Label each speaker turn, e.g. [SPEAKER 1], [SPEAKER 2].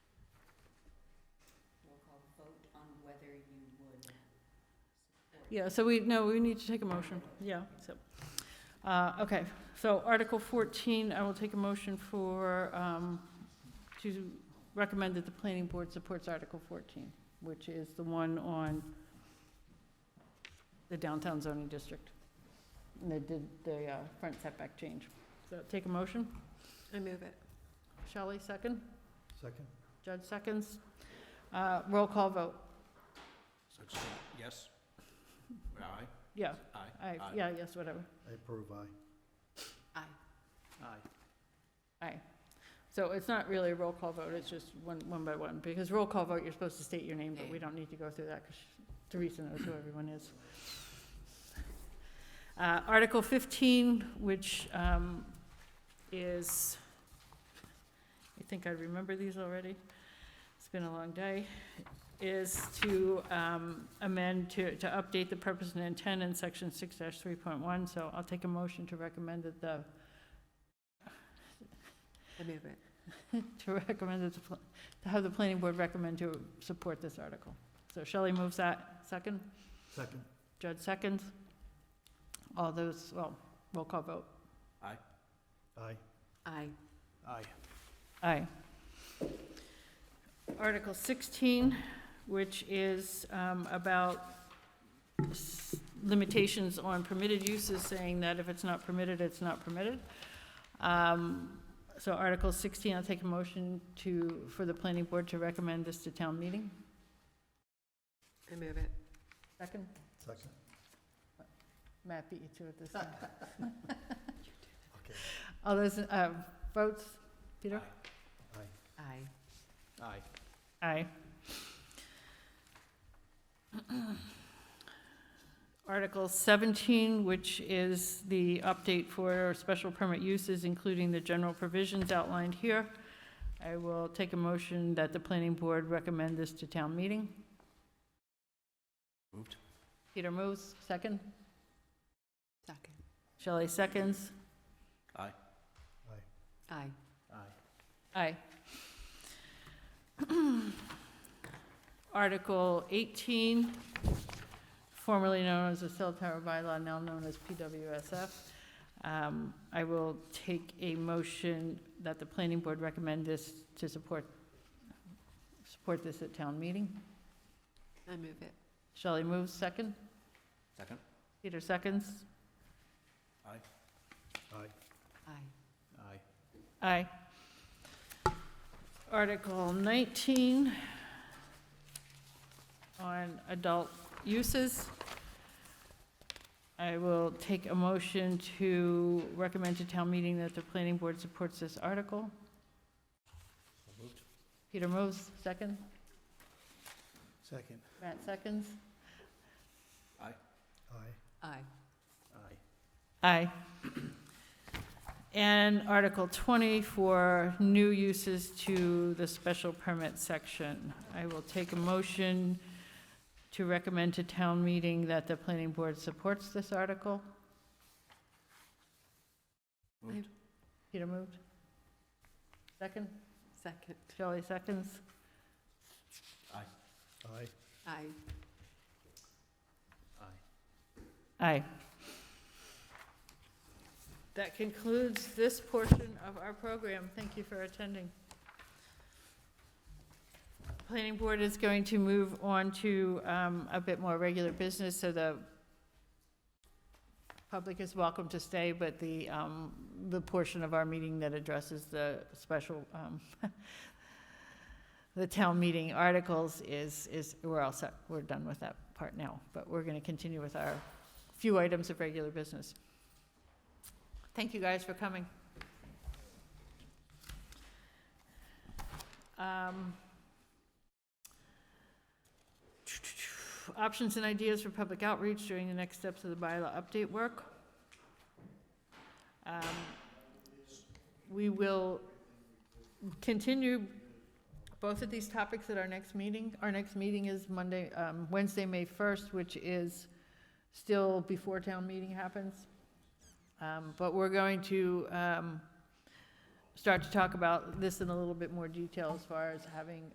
[SPEAKER 1] Yeah, so we, no, we need to take a motion, yeah, so, uh, okay, so Article fourteen, I will take a motion for, um, to recommend that the planning board supports Article fourteen, which is the one on the downtown zoning district, and they did the, uh, front setback change. So take a motion,
[SPEAKER 2] I move it.
[SPEAKER 1] Shelley, second,
[SPEAKER 3] Second?
[SPEAKER 1] Judge seconds, uh, roll call vote,
[SPEAKER 4] Such thing, yes? Aye,
[SPEAKER 1] yeah,
[SPEAKER 4] aye.
[SPEAKER 1] I, yeah, yes, whatever.
[SPEAKER 3] I approve, aye.
[SPEAKER 2] Aye.
[SPEAKER 4] Aye.
[SPEAKER 1] Aye. So it's not really a roll call vote, it's just one, one by one, because roll call vote, you're supposed to state your name, but we don't need to go through that, because Teresa knows who everyone is. Uh, Article fifteen, which, um, is, I think I remember these already, it's been a long day, is to, um, amend, to, to update the purpose and intent in section six three point one, so I'll take a motion to recommend that the
[SPEAKER 2] I move it.
[SPEAKER 1] to recommend that, the pl- to have the planning board recommend to support this article. So Shelley moves that, second,
[SPEAKER 3] Second?
[SPEAKER 1] Judd seconds. All those, well, roll call vote.
[SPEAKER 3] Aye.
[SPEAKER 2] Aye.
[SPEAKER 3] Aye.
[SPEAKER 1] Aye. Article 16, which is um, about s- limitations on permitted uses, saying that if it's not permitted, it's not permitted. Um, So Article 16, I'll take a motion to, for the planning board to recommend this to town meeting.
[SPEAKER 2] I move it.
[SPEAKER 1] Second?
[SPEAKER 3] Second?
[SPEAKER 1] Matt beat you to it this time. All those uh, votes, Peter?
[SPEAKER 3] Aye.
[SPEAKER 2] Aye.
[SPEAKER 4] Aye.
[SPEAKER 1] Aye. Article 17, which is the update for special permit uses, including the general provisions outlined here. I will take a motion that the planning board recommend this to town meeting.
[SPEAKER 4] Moved.
[SPEAKER 1] Peter moves, second.
[SPEAKER 2] Second.
[SPEAKER 1] Shelley seconds.
[SPEAKER 2] Aye.
[SPEAKER 3] Aye.
[SPEAKER 1] Aye. Article 18, formerly known as the cell tower bylaw, now known as PWSF. Um, I will take a motion that the planning board recommend this to support, support this at town meeting.
[SPEAKER 2] I move it.
[SPEAKER 1] Shelley moves second.
[SPEAKER 4] Second?
[SPEAKER 1] Peter seconds.
[SPEAKER 4] Aye.
[SPEAKER 3] Aye.
[SPEAKER 2] Aye.
[SPEAKER 4] Aye.
[SPEAKER 1] Aye. Article 19 on adult uses. I will take a motion to recommend to town meeting that the planning board supports this article.
[SPEAKER 4] So moved.
[SPEAKER 1] Peter moves, second.
[SPEAKER 3] Second?
[SPEAKER 1] Matt seconds.
[SPEAKER 3] Aye.
[SPEAKER 2] Aye.
[SPEAKER 4] Aye.
[SPEAKER 1] Aye. And Article 20 for new uses to the special permit section. I will take a motion to recommend to town meeting that the planning board supports this article.
[SPEAKER 4] Moved.
[SPEAKER 1] Peter moved. Second?
[SPEAKER 2] Second.
[SPEAKER 1] Shelley seconds.
[SPEAKER 3] Aye.
[SPEAKER 2] Aye.
[SPEAKER 4] Aye.
[SPEAKER 1] Aye. That concludes this portion of our program. Thank you for attending. Planning Board is going to move on to um, a bit more regular business, so the public is welcome to stay, but the, um, the portion of our meeting that addresses the special, um, the town meeting articles is, is, we're all set, we're done with that part now, but we're going to continue with our few items of regular business. Thank you guys for coming. Um, Options and ideas for public outreach during the next steps of the bylaw update work. Um, We will continue both of these topics at our next meeting. Our next meeting is Monday, um, Wednesday, May 1st, which is still before town meeting happens. Um, But we're going to um, start to talk about this in a little bit more detail as far as having